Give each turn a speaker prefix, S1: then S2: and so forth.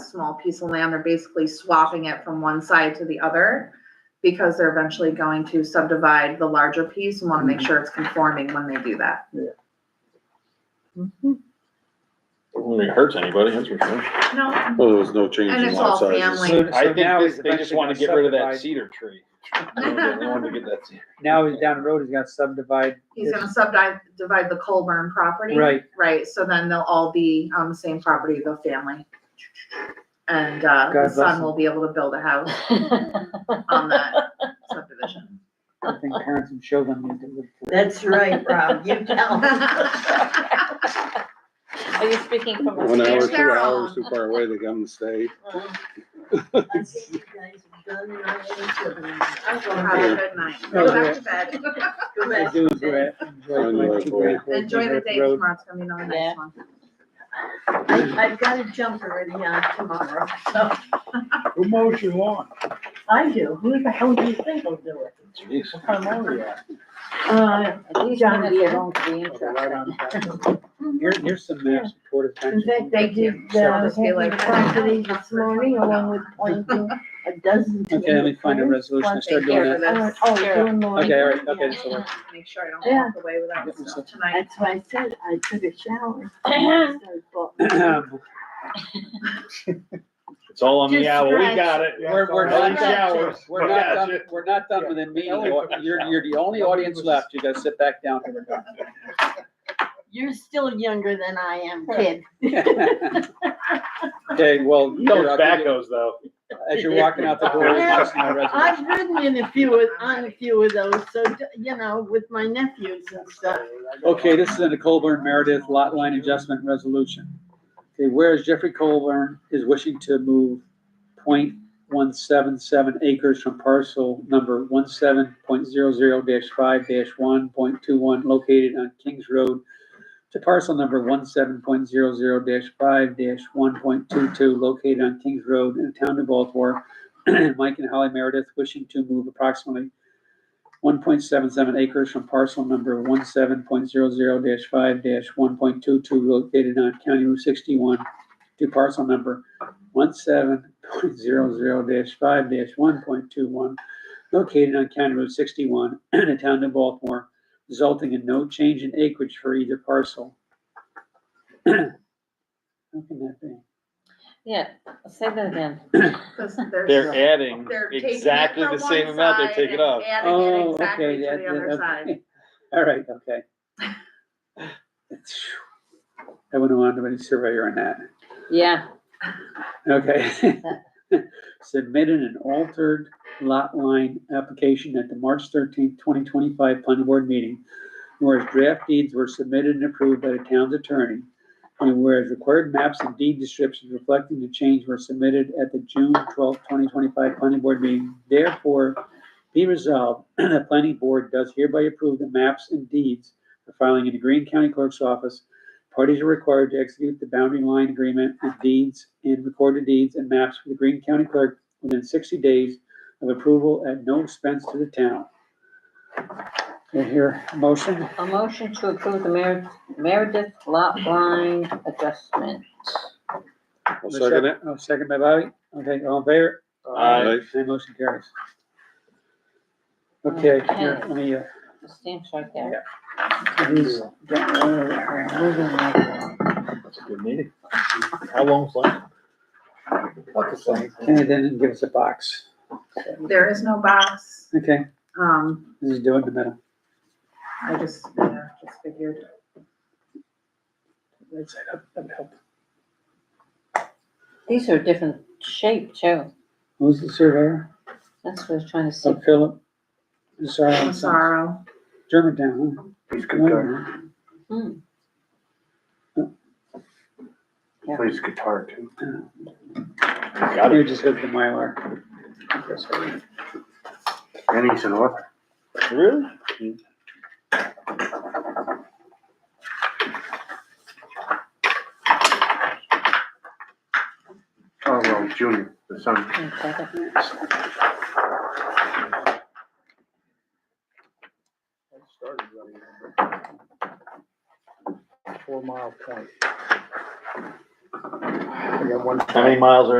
S1: small piece of land, they're basically swapping it from one side to the other because they're eventually going to subdivide the larger piece and want to make
S2: Mm-hmm.
S1: sure it's conforming when they do that.
S3: Wouldn't really hurt anybody, that's for sure.
S1: No,
S4: Well, there was no change
S1: And
S4: in
S1: it's
S4: lot
S1: all
S4: sizes.
S1: family.
S2: So- so
S3: I think
S2: now he's
S3: they, they just
S2: eventually
S3: wanna
S2: gonna
S3: get rid of that
S2: subdivide-
S3: cedar tree. They
S2: Mm-hmm.
S3: wanted to get that cedar.
S2: Now he's down the road, he's got to subdivide.
S1: he's gonna
S2: this-
S1: subdivide, divide the Colburn property.
S2: Right,
S1: Right, so then they'll all be on the same property, the family. And, uh, the
S2: God bless
S1: son
S2: him.
S1: will be able to build a house on that subdivision.
S2: I think parents and children need to look for.
S5: That's right, Rob, you tell.
S6: Are you speaking from a
S4: One
S1: It's
S4: hour,
S6: standpoint?
S4: two
S1: their
S4: hours
S1: own.
S4: too far away, they come and stay.
S5: I think you guys have done it all.
S1: Have a good night.
S2: Oh,
S1: Go back to bed.
S5: Go
S2: I
S5: back
S2: do
S5: to
S2: enjoy
S5: bed.
S2: it. Enjoy going to Great Falls,
S1: Enjoy the
S2: Great
S1: day
S2: Road.
S1: tomorrow, it's gonna be another
S6: Yeah.
S1: nice one.
S5: I- I've got a jumper ready on tomorrow, so
S2: Who mows your lawn?
S5: I do. Who the hell do you think will do it?
S3: Jeez.
S2: What kind of mower you at?
S5: Uh,
S6: These
S5: John
S6: minutes are going
S5: Deere.
S6: to be
S2: Okay, right
S6: interesting.
S2: on the
S1: Mm-hmm.
S2: back. Here, here's some maps supportive.
S5: in fact, I did, uh, Hagley property this morning along with planting a dozen.
S2: Okay, let me find a
S1: Mm-hmm.
S5: tomatoes.
S2: resolution, I started
S1: Thank you
S2: doing
S1: for
S2: that.
S5: I
S1: this.
S5: went, Oh, doing the.
S2: Okay, all right, okay, so,
S1: Make sure I don't
S5: Yeah.
S1: walk away without
S2: Oh, Yeah.
S1: stuff tonight.
S5: That's why I said I took a shower. We're,
S3: It's all on the
S5: Just
S3: owl, we
S5: scratch.
S3: got it.
S2: we're, we're
S5: all
S2: not
S5: right.
S2: done, we're not done,
S3: Gotcha.
S2: we're not done with the meeting, you're, you're the only audience left, you gotta sit back down.
S5: You're still younger than I am, kid.
S2: Okay, well,
S3: No
S2: here, I'll give you-
S3: tobaccos though.
S2: as you're walking out the door, I'll sign a resolution.
S5: I've ridden in a few, of- on a few of those, so, you know, with my nephews and stuff.
S2: Okay, this is in the Colburn Meredith Lot Line Adjustment Resolution. Okay, whereas Jeffrey Colburn is wishing to move 0.177 acres from parcel number 17.00 five one point two one located on Kings Road to parcel number 17.00 five one point two two located on Kings Road in the town of Baltimore. Mike and Holly Meredith wishing to move approximately one point seven seven acres from parcel number one five one point two two located on County Route sixty-one to parcel number one five one point two one located on County Route sixty-one in the town of Baltimore, resulting in no change in acreage for either parcel. How can that be?
S6: Yeah, say that again.
S1: 'Cause there's-
S3: They're adding
S1: they're taking it
S3: exactly
S1: from
S3: the same
S1: one
S3: amount they're
S1: side
S3: taking
S1: and
S3: off.
S1: Adding it
S2: Oh,
S1: exactly
S2: okay,
S1: to
S2: that-
S1: the other
S2: that-
S1: side.
S2: okay. All right, okay. I wouldn't want anybody surveyor on that.
S6: Yeah,
S2: Okay. Submitted an altered lot line application at the March thirteenth, twenty twenty-five planning board meeting. Whereas draft deeds were submitted and approved by the town's attorney. And whereas required maps and deed descriptions reflecting the change were submitted at the June twelfth, twenty twenty-five planning board meeting. Therefore, be resolved, the planning board does hereby approve the maps and deeds for filing in the Green County Clerk's office Parties are required to execute the boundary line agreement with deeds and recorded deeds and maps with the Green County Clerk within sixty days of approval at no expense to the town. Do I hear a motion?
S6: a motion to approve the Mer- Meredith lot line adjustment.
S4: I'll second it.
S2: Oh, second by Bobby. Okay, all in favor?
S3: Aye.
S2: Okay, motion carries. Okay, here, let
S6: Okay.
S2: me, uh,
S6: The Stamp's right there.
S2: these-
S6: Moving right along.
S3: It's a Good meeting. How long's left? About the same.
S2: okay, then give us a box.
S1: There is no box,
S2: Okay,
S1: um,
S2: this is doing the middle.
S1: I just, yeah, just figured.
S2: Right side up, that'd help.
S6: These are different shape too.
S2: Who's the surveyor?
S6: That's what I was trying to see.
S2: Oh, Philip. Sorry, I'm sorry.
S1: Sorrow.
S2: Germantown, huh?
S7: Please guitar,
S2: Well,
S6: Hmm.
S7: plays guitar too.
S3: Got
S2: You
S3: it.
S2: just hit the Mylar.
S7: And he's an author.
S3: Really?
S7: Oh, well, Junior, the son.
S6: Can you take it?
S8: Four Mile Point.
S3: I got one. How many miles are